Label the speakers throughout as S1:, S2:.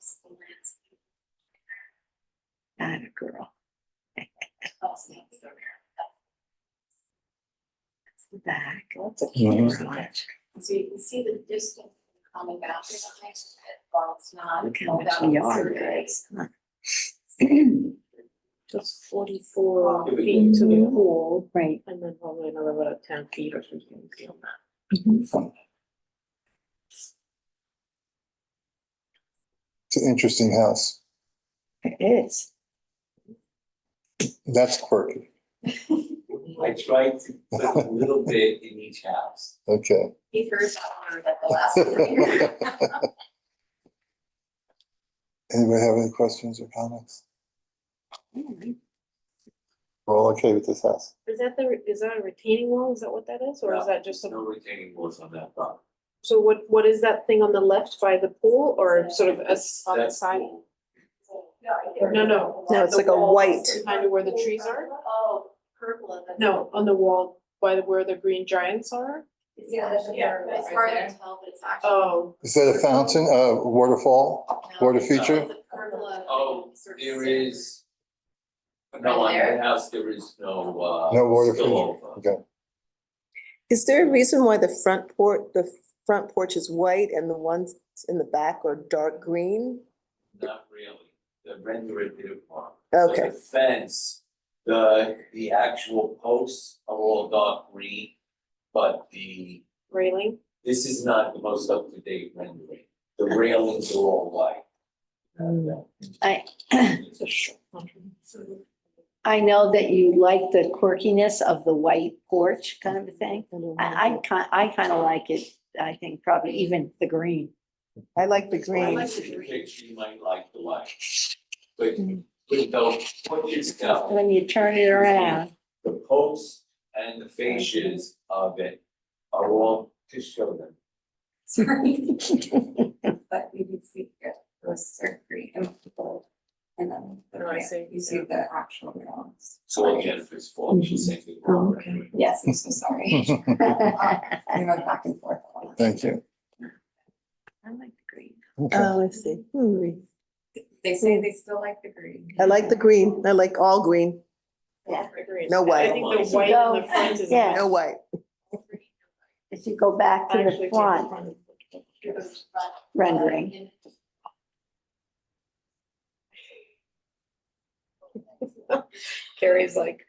S1: school landscape. Not a girl. Also, it's the rear. That's the back. That's a
S2: huge
S1: So you can see the distance coming back to the next bit, while it's not.
S3: Look how
S1: held
S3: much
S1: out in
S3: yard
S1: survey.
S3: it is. Just forty-four feet to the pool
S4: Right.
S3: and then probably another about ten feet or something beyond that.
S2: It's an interesting house.
S3: It is.
S2: That's quirky.
S5: I tried to put a little bit in each house.
S2: Okay.
S1: He first honored at the last one.
S2: Anybody have any questions or comments? We're all okay with this house.
S4: Is that the, is that a retaining wall? Is that what that is? Or is that just
S5: No
S4: a,
S5: retaining walls on that property.
S4: so what, what is that thing on the left by the pool or sort of as on the
S5: That's
S4: side?
S5: cool.
S4: No, no.
S3: No, it's
S4: the
S3: like a
S4: wall
S3: white-
S4: Kind of where the trees are?
S1: Oh, purple and then.
S4: No, on the wall by the, where the green giants are?
S1: Yeah, that's-
S4: Yeah.
S1: it's hard to tell, but it's actually.
S4: Oh,
S2: Is that a fountain, a waterfall?
S1: No,
S2: Water
S1: it's
S2: feature?
S1: a purple and
S5: Oh,
S1: sort of
S5: There
S1: silver.
S5: is. No, on
S1: Right
S5: that
S1: there.
S5: house, there is no uh.
S2: No water
S5: spillover.
S2: feature. Okay.
S6: Is there a reason why the front porch, the front porch is white and the ones in the back are dark green?
S5: Not really, the rendering did it wrong. So
S6: Okay,
S5: The fence, the the actual posts are all dark green, but the,
S4: railing?
S5: this is not the most up to date rendering. The railings are all white.
S1: Mm.
S5: uh,
S7: I, I know that you like the quirkiness of the white porch kind of a thing. I, I kind, I kind of like it, I think probably even the green.
S6: I like the
S5: Well,
S6: green.
S5: I think the picture you might like the light. But but the point is now,
S7: When you turn it around,
S5: the posts and the fascias of it are all to show them.
S1: Sorry. But you can see it was surgery and people. And then the
S4: Oh, I
S1: rail-
S4: see.
S1: you see the actual rounds.
S5: So all Jennifer's fault, she's
S7: Mm-hmm.
S5: saying. the
S7: Oh,
S5: wrong rendering.
S1: Yes, I'm so sorry. I went back and forth. a lot.
S2: Thank you.
S7: I like the green.
S2: Okay.
S6: Oh, I see. Hmm.
S1: They say they still like the green.
S6: I like the green. I like all green,
S7: Yeah.
S4: Agreed.
S6: No
S4: I
S6: white.
S4: think the white in the front is.
S7: Yeah.
S6: no white.
S7: If you go back to
S4: I actually
S7: the
S4: take
S7: front
S4: front.
S7: rendering,
S4: Carrie's like.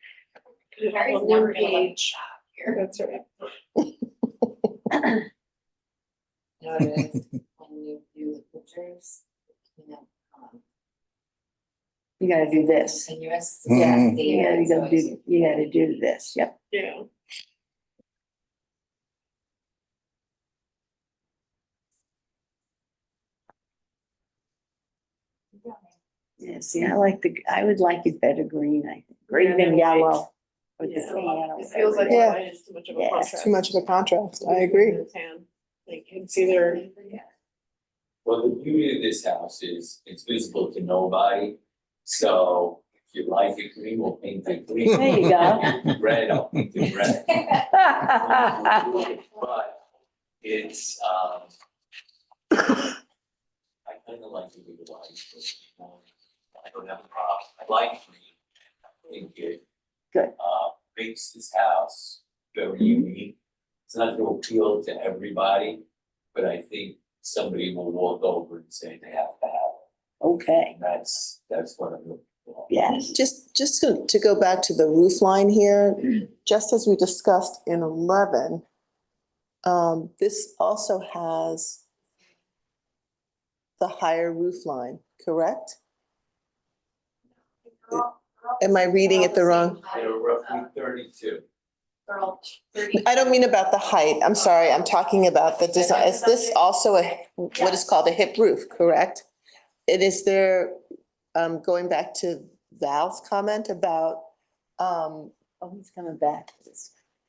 S1: Carrie's
S4: on
S1: never
S4: one
S1: gonna let me
S4: page.
S1: shop here.
S4: That's right.
S1: noticed when you do the pictures, you know, um,
S7: you gotta do this.
S1: continuous.
S2: Yeah. Mhm.
S1: the
S7: You gotta
S1: end, so
S7: go
S1: it's-
S7: do, you gotta do this, yep.
S4: Yeah.
S7: Yeah, see, I like the, I would like it better green, I think,
S4: Yeah,
S7: green
S4: they're
S7: than
S4: white.
S7: yellow. with the
S4: Yeah.
S7: tan or
S4: It feels like
S7: whatever.
S6: Yeah.
S4: white is too much of a
S7: Yeah, it's
S4: contrast.
S6: It's too much of a contrast. I agree.
S4: The tan. Like it's either,
S5: Well, the beauty of this house is it's visible to nobody. So if you like it green, we'll paint it green.
S7: There you go.
S5: Red, I'll paint it red. But it's, um. I kind of like it with the white, but um, I don't have a problem. I like green. I think it.
S7: Good.
S5: Uh, makes this house very unique. It's not gonna appeal to everybody, but I think somebody will walk over and say they have to have it.
S7: Okay,
S5: And that's, that's what I'm looking for.
S7: yes.
S6: Just, just to to go back to the roof line here, just as we discussed in eleven, um, this also has the higher roof line, correct? Am I reading it the wrong?
S5: They're roughly thirty-two.
S1: They're all thirty.
S6: I don't mean about the height. I'm sorry. I'm talking about the design. Is this also a, what is called a hip roof, correct? It is there, um, going back to Val's comment about, um,
S7: Oh, he's coming back.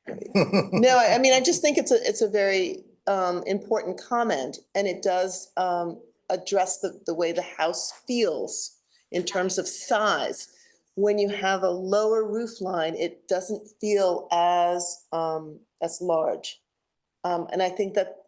S6: No, I, I mean, I just think it's a, it's a very um important comment and it does um address the, the way the house feels in terms of size. When you have a lower roof line, it doesn't feel as um as large. Um, and I think that